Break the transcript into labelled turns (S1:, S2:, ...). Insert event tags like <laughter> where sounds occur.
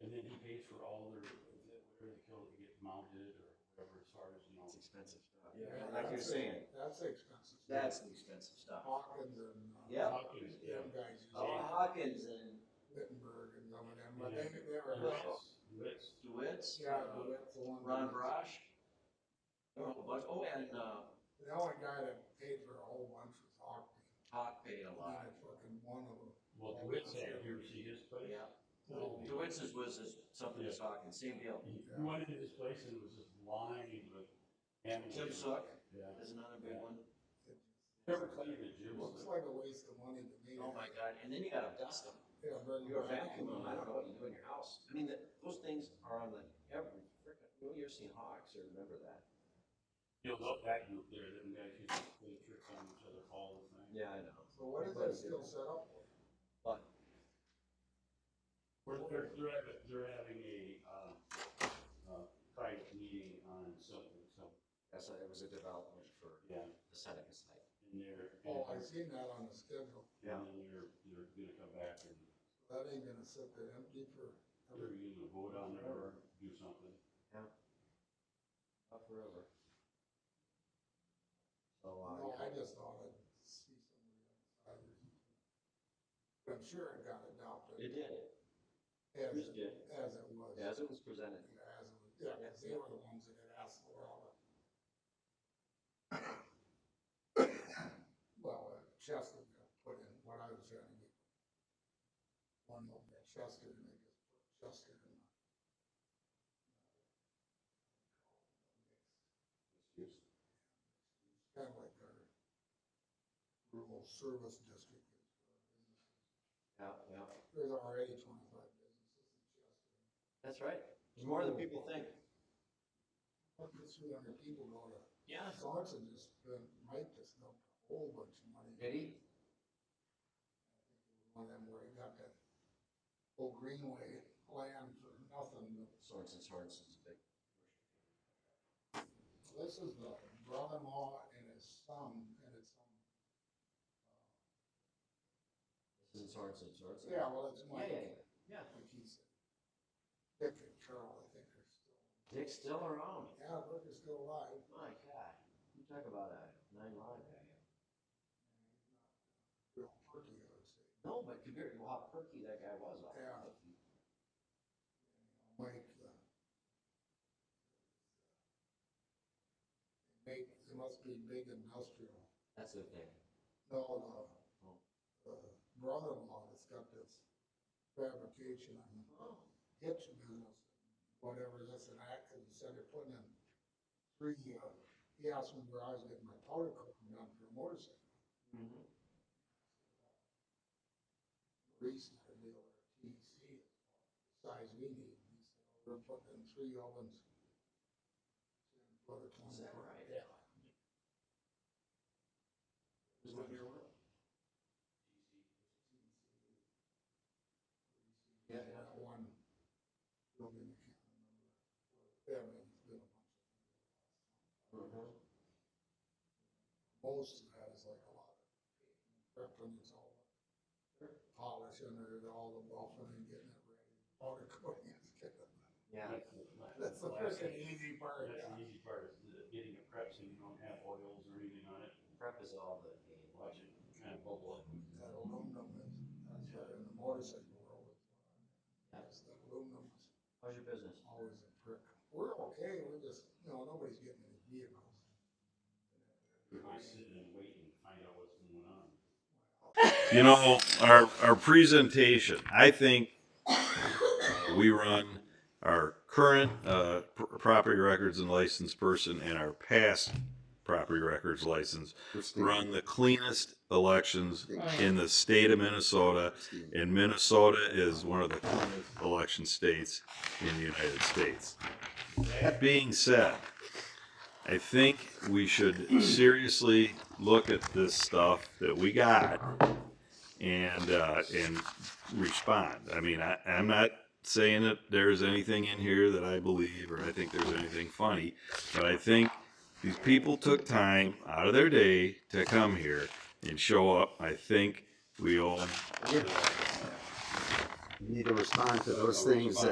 S1: then he pays for all their, whatever the kill that gets mounted or whatever, as far as, you know.
S2: It's expensive stuff.
S3: Yeah,
S2: Like you're
S3: that's-
S2: saying,
S3: That's expensive.
S2: that's the expensive stuff.
S3: Hawkins and. uh,
S2: Yeah.
S1: Hawkins, yeah.
S3: Them guys use
S2: Oh,
S3: it.
S2: Hawkins and
S3: Wittenberg and some of them,
S1: Yeah.
S3: but they, they were.
S1: Wits, Wits.
S2: DeWitt's,
S3: Yeah, that's the one.
S2: uh, Ron Brosh. There were a bunch, oh, and, uh,
S3: The only guy that paid for a whole bunch was Hawkins.
S2: Hawk paid a lot.
S3: Fucking one of them.
S1: Well, DeWitt's had, you ever see his place?
S2: Yeah.
S1: Well,
S2: DeWitt's is- was is something that's Hawkins, same deal.
S1: He he went into this place and it was just lined with. animals.
S2: Jim Suck
S1: Yeah.
S2: is another big one.
S3: It
S1: Never claimed that Jim
S3: Looks
S1: was.
S3: like a waste of money to me.
S2: Oh my God, and then you gotta dust them.
S3: Yeah, but.
S2: You're vacuuming, I don't know what you do in your house. I mean, the- those things are on the, every, frickin'- you ever seen Hawks or remember that?
S1: He'll love that group there, them guys used to play tricks on each other all the time.
S2: Yeah, I know.
S3: So what is that still set up for?
S1: We're, they're, they're having, they're having a, uh, uh, private meeting on something, so,
S2: That's, a- it was a development for
S1: yeah,
S2: the Seneca site.
S1: and they're.
S3: Oh, I seen that on the schedule.
S1: And then they're, they're gonna come back and
S3: That ain't gonna sit there empty for.
S1: they're gonna vote on it or do something,
S2: Not forever. So, uh,
S3: No, I just thought I'd see somebody else. I'm sure it got adopted.
S2: it did,
S3: As,
S2: Chris did.
S3: as it was.
S2: as it was presented.
S3: As it was, yeah, 'cause they were the ones that had asked for all the. <coughs> Well, uh, Chester got put in, what I was trying to get. One of them, Chester, and they just put Chester in. Kind of like our rural service district. is for businesses.
S2: Yeah, yeah.
S3: There's already twenty-five businesses in Chester.
S2: That's right. It's more than people think.
S3: What could three hundred people go to?
S2: Yeah.
S3: Sorensen just spent, Mike just dumped a whole bunch of money.
S2: Did he?
S3: One of them where he got that old Greenway land for nothing.
S2: Sorensen, Sorensen's a big.
S3: But This is the brother-in-law and his son, and it's, um,
S2: This isn't Sorensen, Sorensen.
S3: yeah, well, it's Mike.
S2: Yeah, yeah, yeah.
S3: Like he said. Dick and Carol, I think are still,
S2: Dick's still around.
S3: yeah, Rick is still alive.
S2: My God. You talk about a nine line guy.
S3: and he's not uh, Real pretty, I would say.
S2: No, but compared to how perky that guy was. I
S3: Yeah.
S2: think he-
S3: Mike, uh, make, it must be big industrial.
S2: That's the thing.
S3: No,
S2: Oh.
S3: the, uh, brother-in-law that's got this fabrication and
S2: Oh,
S3: hitch business, whatever this and that, cause he said they're putting in three, uh, he asked me where I was getting my powder coating done for a motorcycle.
S2: mhm.
S3: Reese, our dealer at TEC, size we need, he said, we're putting in three ovens.
S2: Is that right?
S3: Yeah.
S2: Is what you're with? Yeah, yeah.
S3: That one. building, I can't remember. Yeah, I mean, it's been a bunch of them.
S2: Mhm.
S3: Most of that is like a lot of prepping, it's all polishing it, all the buffing and getting it ready. Powder coating is getting it.
S2: Yeah.
S3: That's the freaking easy part,
S1: That's
S3: yeah.
S1: the easy part, is the- getting it prepped so you don't have oils or anything on it,
S2: Prep is all the game.
S1: watch it kind of bubble up.
S3: That aluminum is, that's right, in the motorcycle world. That's the aluminum is
S2: How's your business?
S3: always a prick. We're okay, we're just, you know, nobody's getting any vehicles.
S1: You're sitting and waiting to find out what's going on.
S4: You know, our, our presentation, I think uh, we run our current uh, pr- property records and licensed person and our past property records license run the cleanest elections in the state of Minnesota. And Minnesota is one of the cleanest election states in the United States. That being said, I think we should seriously look at this stuff that we got and uh, and respond. I mean, I, I'm not saying that there's anything in here that I believe or I think there's anything funny, but I think these people took time out of their day to come here and show up. I think we owe them
S5: You Need to respond to those things that